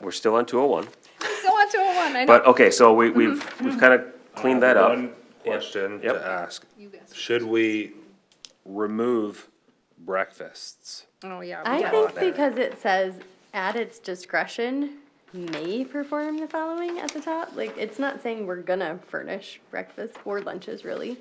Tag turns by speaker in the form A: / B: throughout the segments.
A: We're still on two oh one,
B: Still on 201, I know.
A: but, okay, so we,
B: Mm-hmm.
A: we've, we've kinda cleaned that up.
C: Uh, One question
A: Yep.
C: to ask,
B: You guys-
C: should we remove breakfasts?
B: Oh, yeah. we
D: I
B: got-
D: think because it says at its discretion may perform the following at the top, like, it's not saying we're gonna furnish breakfast or lunches, really.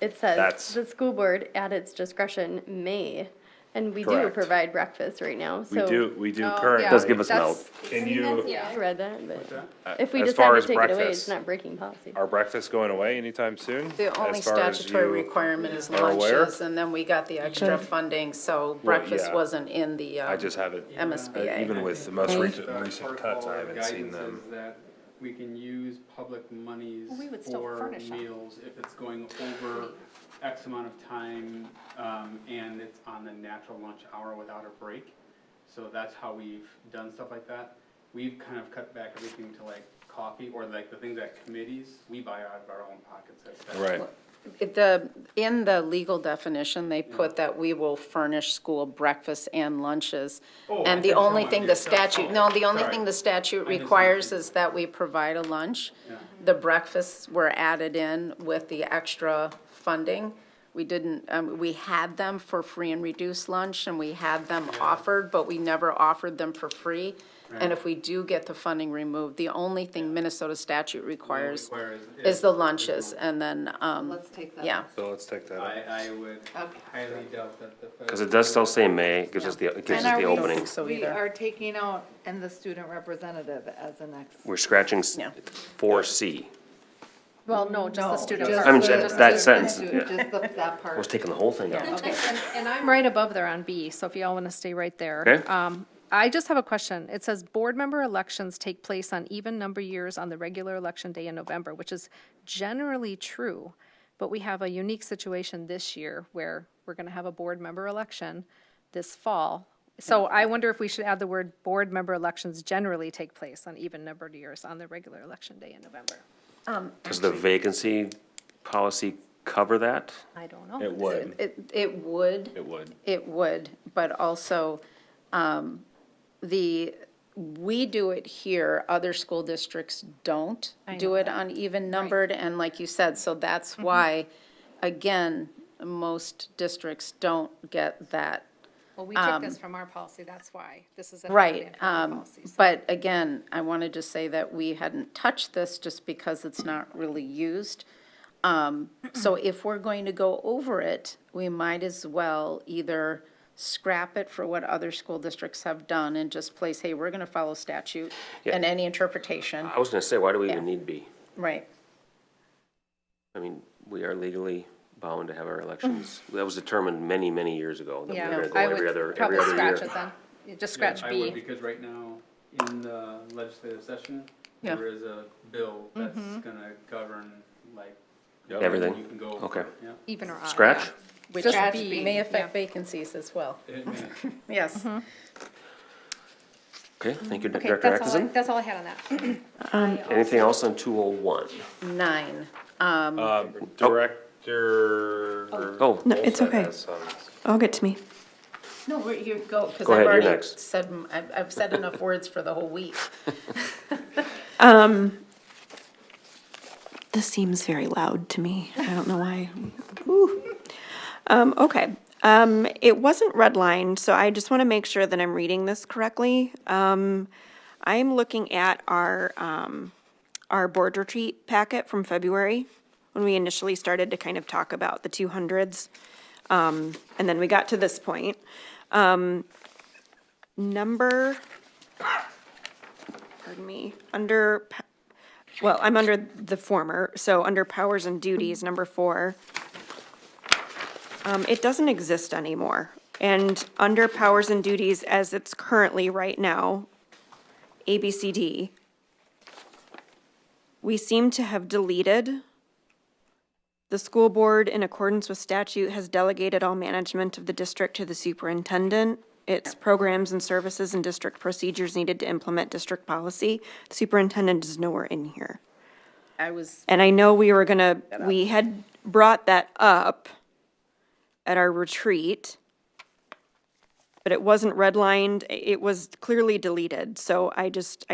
D: It
C: That's-
D: says the school board at its discretion may, and we do
C: Correct.
D: provide breakfast right now,
C: We
D: so.
C: do, we do
B: Oh,
C: currently.
B: yeah,
A: Does give us an
B: that's-
C: Can you,
D: Yeah, I read that, but if we
C: As far
D: decide to
C: as
D: take it away,
C: breakfast-
D: it's not breaking policy.
C: are breakfasts going away anytime soon?
E: The only
C: As far as
E: statutory
C: you-
E: requirement is
C: are aware?
E: lunches, and then we got the extra funding, so breakfast
C: yeah.
E: wasn't in the
C: I
E: um,
C: just haven't, even
E: MSBA.
C: with the most recent,
F: Uh,
C: recent
F: protocol
C: cuts, I
F: or
C: haven't seen
F: guidance
C: them.
F: is That we can use public monies
B: we would still
F: for
B: furnish them.
F: meals if it's going over X amount of time, um, and it's on the natural lunch hour without a break. So that's how we've done stuff like that. We've kind of cut back everything to like coffee or like the things that committees, we buy out of our own pockets. That's- that's-
C: Right,
E: It- The, in the legal definition, they put that we will furnish school breakfast and lunches.
F: Oh, I
E: And the
F: think
E: only
F: someone
E: thing
F: did
E: the
F: that.
E: statute, no, the only
F: Sorry.
E: thing the statute
F: just
E: requires
F: understood.
E: is that we provide a lunch.
F: Yeah.
E: The breakfasts were added in with the extra funding. We didn't, um, we had them for free and reduced lunch, and we had them offered, but we never offered them for free. And if we do get the funding removed, the only thing Minnesota statute requires
F: requires
E: is
F: is-
E: the lunches, and then, um,
B: Let's take that.
E: yeah.
C: so let's take that out.
F: I, I would highly doubt that the.
A: Cause it does still say may, it gives us the, it gives us
G: And are
A: the
G: we-
A: opening.
E: so
G: We
E: either.
G: are taking out, and the student representative as the next.
A: We're scratching s-
E: Yeah.
A: four C.
B: Well, no, just the student.
G: Just
B: part.
A: I'm just-
G: the-
A: that
G: just the-
A: sentence,
G: just
A: yeah.
G: the- that
A: I was
G: part.
A: taking the whole thing out.
B: Okay, and, and I'm right above there on B, so if y'all want to stay right there.
A: Okay.
B: Um, I just have a question. It says, "Board member elections take place on even number years on the regular election day in November," which is generally true, but we have a unique situation this year where we're going to have a board member election this fall. So I wonder if we should add the word, "Board member elections generally take place on even numbered years on the regular election day in November."
A: Does the vacancy policy cover that?
B: I don't know.
C: It would,
E: It, it would.
C: it would.
E: It would, but also, um, the, we do it here, other school districts don't do it on even numbered, and like you said, so that's why, again, most districts don't get that.
B: Well, we took this from our policy, that's why. This is. an
E: Um, Right,
B: amendment from our
E: um,
B: policy, so-
E: but again, I want to just say that we hadn't touched this just because it's not really used. Um, so if we're going to go over it, we might as well either scrap it for what other school districts have done and just place, hey, we're going to follow statute and any interpretation,
A: I was gonna say, why do we even
E: Yeah.
A: need B?
E: right?
A: I mean, we are legally bound to have our elections. That was determined many, many years ago, that we
B: Mm-hmm. Yeah,
A: were
B: I
A: gonna go every other,
B: would
A: every
B: probably
A: other year.
B: scratch it then. You Just scratch
F: I would,
B: B.
F: because right now, in the legislative session,
E: Yeah.
F: there is a bill that's
B: Mm-hmm.
F: gonna govern, like.
C: Yep.
A: Everything.
F: You can go.
A: Okay.
F: Yeah.
B: Even or odd.
A: Scratch?
E: Which
B: Just B,
E: may affect
B: yeah.
E: vacancies as well,
F: It may-
E: yes.
A: Okay, thank you,
B: Mm-hmm. Okay,
A: Director
B: that's all, I-
A: Atkinson.
B: that's all I had on that.
A: Anything else on two oh one?
E: Nine, Um,
A: Uh,
C: Uh, Director.
A: Oh,
H: No, it's
C: Olson
H: okay.
C: has some.
H: Oh, get to me.
E: no, we're- you go, because
A: Go ahead,
E: I've
A: you're
E: already
A: next.
E: said, m- I've, I've said enough words for the whole week.
H: This seems very loud to me. I don't know why. Ooh. Um, okay. Um, it wasn't redlined, so I just want to make sure that I'm reading this correctly. Um, I'm looking at our um, our board retreat packet from February when we initially started to kind of talk about the 200s, um, and then we got to this point. Um, number, pardon me, under. pa- Well, I'm under the former, so under powers and duties, number four. Um, it doesn't exist anymore. And under powers and duties as it's currently right now, A, B, C, D, we seem to have deleted. The school board, in accordance with statute, has delegated all management of the district to the superintendent. Its programs and services and district procedures needed to implement district policy. Superintendent is nowhere in here.
E: I was
H: And I know we were gonna, we had brought that up at our retreat, but it wasn't redlined, it was clearly deleted, so I just,